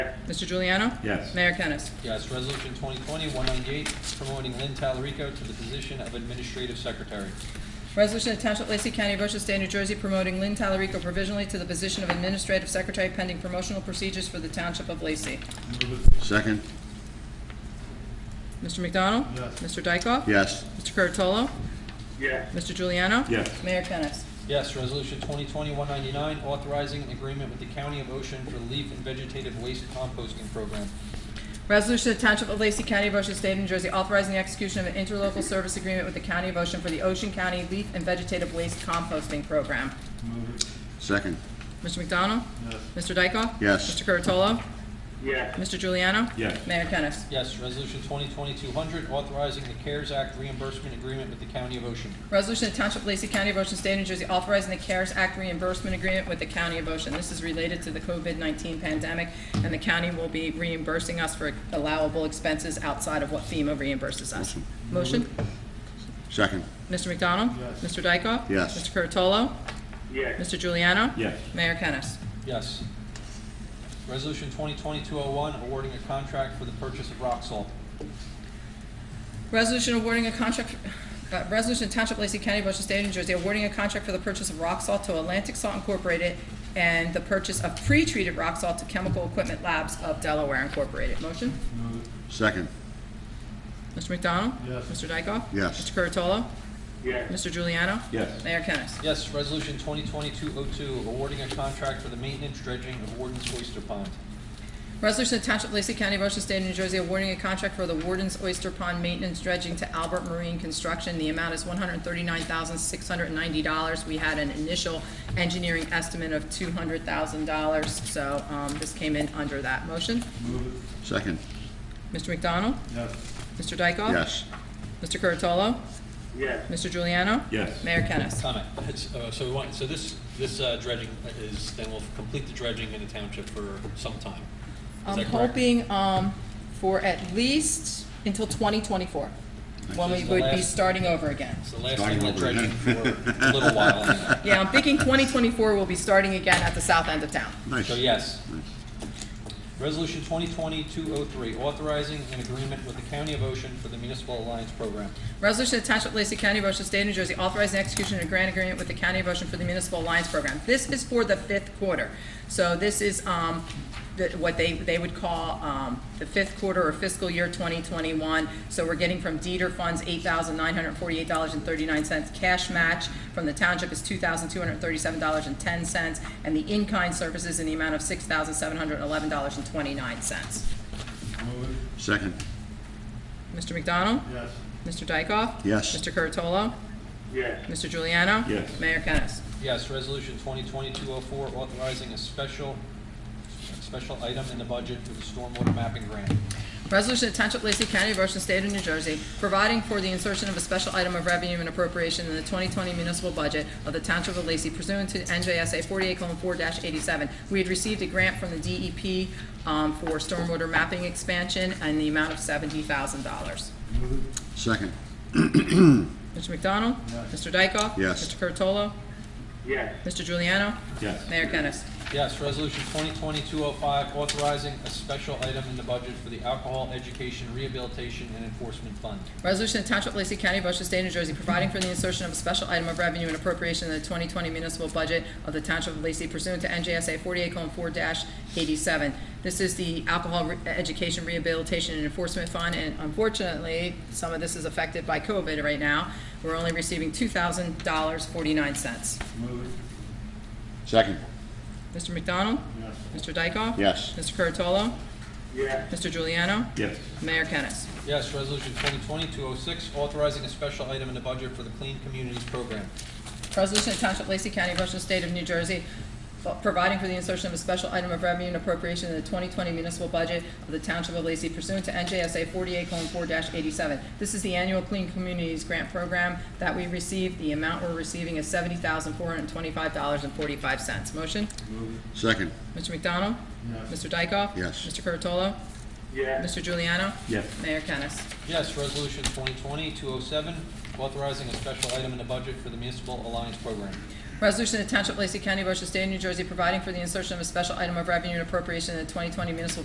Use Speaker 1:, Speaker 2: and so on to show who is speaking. Speaker 1: Mr. Juliano?
Speaker 2: Yes.
Speaker 1: Mayor Kennas.
Speaker 3: Yes, Resolution 2020-198, promoting Lynn Talarico to the position of Administrative Secretary.
Speaker 1: Resolution to Township of Lacey County, Ocean State, New Jersey, promoting Lynn Talarico provisionally to the position of Administrative Secretary pending promotional procedures for the Township of Lacey.
Speaker 2: Second?
Speaker 1: Mr. McDonald?
Speaker 4: Yes.
Speaker 1: Mr. Dykoff?
Speaker 2: Yes.
Speaker 1: Mr. Curatolo?
Speaker 4: yes,
Speaker 1: Mr. Juliano?
Speaker 2: Yes.
Speaker 1: Mayor Kennas.
Speaker 3: Yes, Resolution 2020-199, authorizing an agreement with the County of Ocean for leaf and vegetative waste composting program.
Speaker 1: Resolution to Township of Lacey County, Ocean State, New Jersey, authorizing the execution of an interlocal service agreement with the County of Ocean for the Ocean County Leaf and Vegetative Waste Composting Program.
Speaker 2: Second?
Speaker 1: Mr. McDonald? Yes. Mr. Dykoff?
Speaker 2: Yes.
Speaker 1: Mr. Curatolo?
Speaker 4: yes,
Speaker 1: Mr. Juliano?
Speaker 2: Yes.
Speaker 1: Mayor Kennas.
Speaker 3: Yes, Resolution 2020-200, authorizing the CARES Act reimbursement agreement with the County of Ocean.
Speaker 1: Resolution of Township of Lacey County, Ocean State, New Jersey, authorizing the CARES Act reimbursement agreement with the County of Ocean. This is related to the COVID-19 pandemic, and the county will be reimbursing us for allowable expenses outside of what FEMA reimburses us. Motion?
Speaker 2: Second?
Speaker 1: Mr. McDonald? Yes. Mr. Dykoff?
Speaker 2: Yes.
Speaker 1: Mr. Curatolo?
Speaker 4: yes,
Speaker 1: Mr. Juliano?
Speaker 2: Yes.
Speaker 1: Mayor Kennas.
Speaker 3: Yes. Resolution 2020-201, awarding a contract for the purchase of rock salt.
Speaker 1: Resolution awarding a contract, uh, resolution of Township of Lacey County, Ocean State, New Jersey, awarding a contract for the purchase of rock salt to Atlantic Salt Incorporated and the purchase of pre-treated rock salt to Chemical Equipment Labs of Delaware Incorporated. Motion?
Speaker 2: Second?
Speaker 1: Mr. McDonald? Yes. Mr. Dykoff?
Speaker 2: Yes.
Speaker 1: Mr. Curatolo?
Speaker 4: yes,
Speaker 1: Mr. Juliano?
Speaker 2: Yes.
Speaker 1: Mayor Kennas.
Speaker 3: Yes, Resolution 2020-202, awarding a contract for the maintenance dredging of Warden's Oyster Pond.
Speaker 1: Resolution of Township of Lacey County, Ocean State, New Jersey, awarding a contract for the Warden's Oyster Pond Maintenance Dredging to Albert Marine Construction. The amount is one hundred thirty-nine thousand, six hundred and ninety dollars. We had an initial engineering estimate of two hundred thousand dollars, so, um, this came in under that. Motion?
Speaker 2: Second?
Speaker 1: Mr. McDonald? Yes. Mr. Dykoff?
Speaker 2: Yes.
Speaker 1: Mr. Curatolo?
Speaker 4: yes,
Speaker 1: Mr. Juliano?
Speaker 2: Yes.
Speaker 1: Mayor Kennas.
Speaker 5: Comment. It's, uh, So we want, so this, this uh, dredging is, then we'll complete the dredging in the township for some time. Is
Speaker 1: I'm
Speaker 5: that correct?
Speaker 1: hoping um, for at least until 2024, when we
Speaker 3: This is the
Speaker 1: would be
Speaker 3: last-
Speaker 1: starting over again.
Speaker 5: It's the last
Speaker 2: Starting
Speaker 5: time the
Speaker 2: over again.
Speaker 5: dredging for a little while. anyway.
Speaker 1: Yeah, I'm thinking 2024 will be starting again at the south end of town.
Speaker 2: Nice.
Speaker 3: So yes.
Speaker 2: Nice.
Speaker 3: Resolution 2020-203, authorizing an agreement with the County of Ocean for the Municipal Alliance Program.
Speaker 1: Resolution to Township of Lacey County, Ocean State, New Jersey, authorizing execution of a grant agreement with the County of Ocean for the Municipal Alliance Program. This is for the fifth quarter. So this is um, the- what they, they would call um, the fifth quarter or fiscal year 2021. So we're getting from Dieter Funds $8,948.39. Cash match from the township is $2,237.10. And the in-kind services in the amount of $6,711.29.
Speaker 2: Second?
Speaker 1: Mr. McDonald?
Speaker 4: yes,
Speaker 1: Mr. Dykoff?
Speaker 2: Yes.
Speaker 1: Mr. Curatolo?
Speaker 4: yes,
Speaker 1: Mr. Juliano?
Speaker 2: Yes.
Speaker 1: Mayor Kennas.
Speaker 3: Yes, Resolution 2020-204, authorizing a special, a special item in the budget for the stormwater mapping grant.
Speaker 1: Resolution to Township of Lacey County, Ocean State of New Jersey, providing for the insertion of a special item of revenue and appropriation in the 2020 municipal budget of the Township of Lacey pursuant to NJSA 48:4-87. We had received a grant from the DEP um, for stormwater mapping expansion and the amount of $70,000.
Speaker 2: Second?
Speaker 1: Mr. McDonald? Mr. Dykoff?
Speaker 2: Yes.
Speaker 1: Mr. Curatolo?
Speaker 4: yes,
Speaker 1: Mr. Juliano?
Speaker 2: Yes.
Speaker 1: Mayor Kennas.
Speaker 3: Yes, Resolution 2020-205, authorizing a special item in the budget for the Alcohol Education Rehabilitation and Enforcement Fund.
Speaker 1: Resolution to Township of Lacey County, Ocean State, New Jersey, providing for the insertion of a special item of revenue and appropriation in the 2020 municipal budget of the Township of Lacey pursuant to NJSA 48:4-87. This is the Alcohol Re- Education Rehabilitation and Enforcement Fund, and unfortunately, some of this is affected by COVID right now. We're only receiving $2,000.49.
Speaker 2: Second?
Speaker 1: Mr. McDonald? Yes. Mr. Dykoff?
Speaker 2: Yes.
Speaker 1: Mr. Curatolo?
Speaker 4: yes,
Speaker 1: Mr. Juliano?
Speaker 2: Yes.
Speaker 1: Mayor Kennas.
Speaker 3: Yes, Resolution 2020-206, authorizing a special item in the budget for the Clean Communities Program.
Speaker 1: Resolution of Township of Lacey County, Ocean State of New Jersey, providing for the insertion of a special item of revenue and appropriation in the 2020 municipal budget of the Township of Lacey pursuant to NJSA 48:4-87. This is the annual Clean Communities Grant Program that we receive. The amount we're receiving is $70,425.45. Motion?
Speaker 2: Second?
Speaker 1: Mr. McDonald? Mr. Dykoff?
Speaker 2: Yes.
Speaker 1: Mr. Curatolo?
Speaker 4: yes,
Speaker 1: Mr. Juliano?
Speaker 2: Yes.
Speaker 1: Mayor Kennas.
Speaker 3: Yes, Resolution 2020-207, authorizing a special item in the budget for the Municipal Alliance Program.
Speaker 1: Resolution to Township of Lacey County, Ocean State, New Jersey, providing for the insertion of a special item of revenue and appropriation in the 2020 municipal